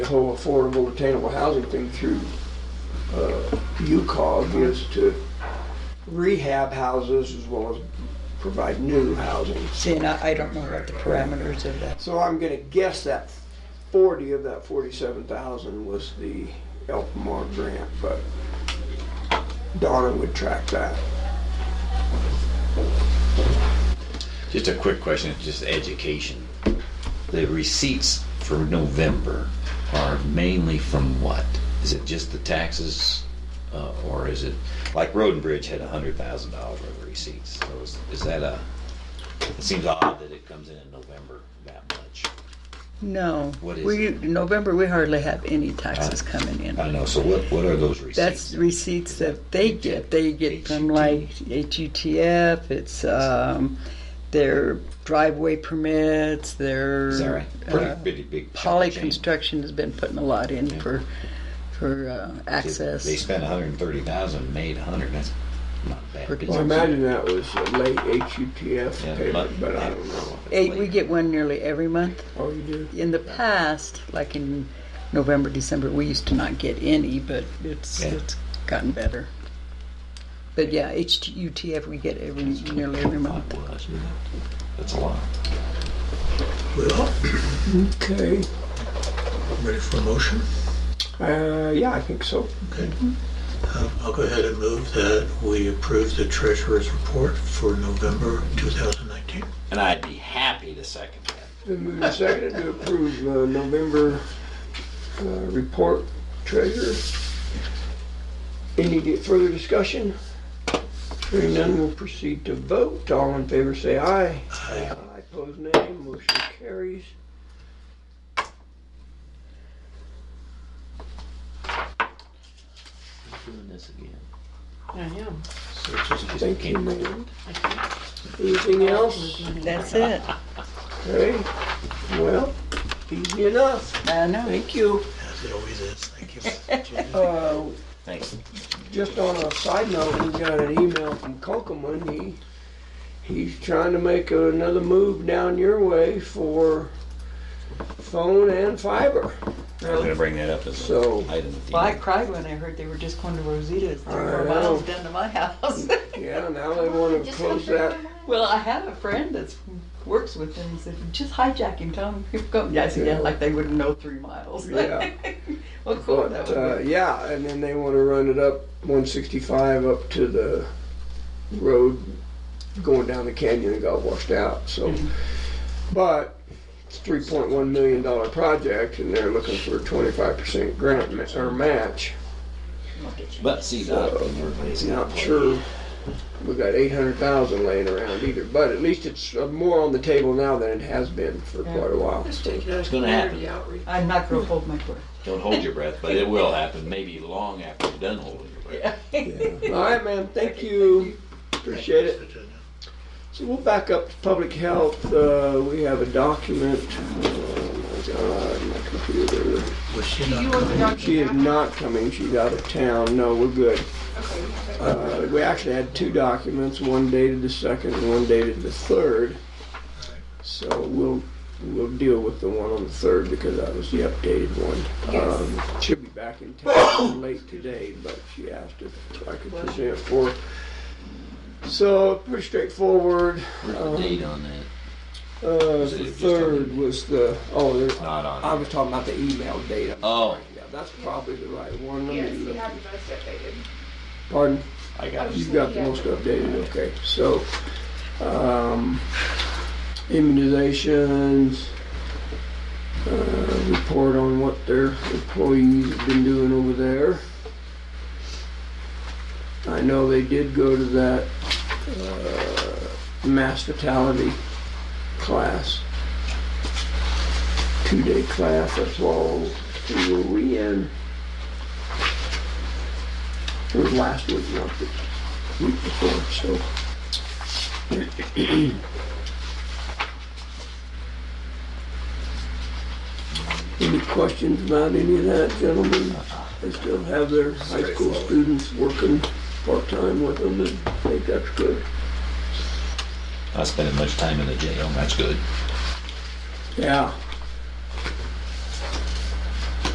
whole affordable attainable housing thing through uh, UCOG is to rehab houses as well as provide new housing. See, and I, I don't know what the parameters of that. So I'm gonna guess that forty of that forty-seven thousand was the Elmore grant, but Donna would track that. Just a quick question, just education. The receipts for November are mainly from what? Is it just the taxes, uh, or is it, like Road and Bridge had a hundred thousand dollars worth of receipts, so is, is that a, it seems odd that it comes in in November that much. No. What is Uh, We, November, we hardly have any taxes coming I in. don't know, so what, what are those receipts? That's receipts that they get. They get from like HUTF, it's, um, their driveway permits, their. Is that right? uh, Pretty, pretty big. chunk Poly of change. Construction has been putting a lot in for, for uh, They access. spent a hundred and thirty thousand, made a hundred, that's not bad. Pretty I imagine that was a late HUTF Yeah, payment, but I don't know. Eight, we get one nearly every month. Oh, you do? In the past, like in November, December, we used to not get any, but it's, Yeah. it's gotten better. But yeah, HUTF we get every, nearly every month. That's a lot. Well, Okay, ready for a motion? uh, yeah, I think so. Okay. Um, I'll go ahead and move that we approve the treasurer's report for November 2019. And I'd be happy to second that. Been moved and seconded to approve uh, November uh, report treasurer. Any di- further discussion? Hearing none, we'll proceed to vote. All in favor say aye. Aye. Aye, pose nay, motion carries. Doing this again. I am. So just Thank you, ma'am. Anything else? That's it. Okay, well, easy enough. I know. Thank you. as it always is. Thank you. Uh, Thanks. Just on a side note, we got an email from Kokoman. He, he's trying to make another move down your way for phone and fiber. I was gonna bring that up as So- an item. at the Well, I end. cried when I heard they were just going to Rosita's, three I more know. miles down to my house. Yeah, now they want to close that. Well, I have a friend that's works with them, he said, just hijack him, tell him you're coming. Yeah, I said, yeah, like they wouldn't know three miles. Yeah. Well, cool, that But, uh, would be. yeah, and then they want to run it up 165 up to the road going down the canyon and got washed out, so. But it's $3.1 million dollar project and they're looking for a 25% grant ma- or match. But see, that, everybody's I'm got Not plenty. sure we got eight hundred thousand laying around either, but at least it's uh, more on the table now than it has been for quite a while. It's gonna happen. uh, I'm not gonna hold my breath. Don't hold your breath, but it will happen, maybe long after you're done holding your breath. All right, ma'am, thank you, appreciate it. So we'll back up to public health, uh, we have a document, oh my god, my computer. Was she not coming? She is not coming, she's out of town, no, we're good. Uh, we actually had two documents, one dated the second and one dated the third. So we'll, we'll deal with the one on the third because that was the updated one. Um, She'll be back in town late today, but she asked if I could present for. her. So pretty straightforward. Where's the date on that? Uh, it the just on the- third was the, oh, there- Not I on it. was talking about the email data. Oh. Yeah, that's probably the right one. Let me Yes, you look. have the most updated. Pardon? I got You've it. got the most updated, okay. So, um, immunizations, uh, report on what their employees have been doing over there. I know they did go to that, uh, mass fatality class. Two-day class, that's all we were we in. It was last week, not the week before, so. Any questions about any of that, gentlemen? They still have their high school students working part-time with them, and I think that's good. Not spending much time in the jail, that's good. Yeah,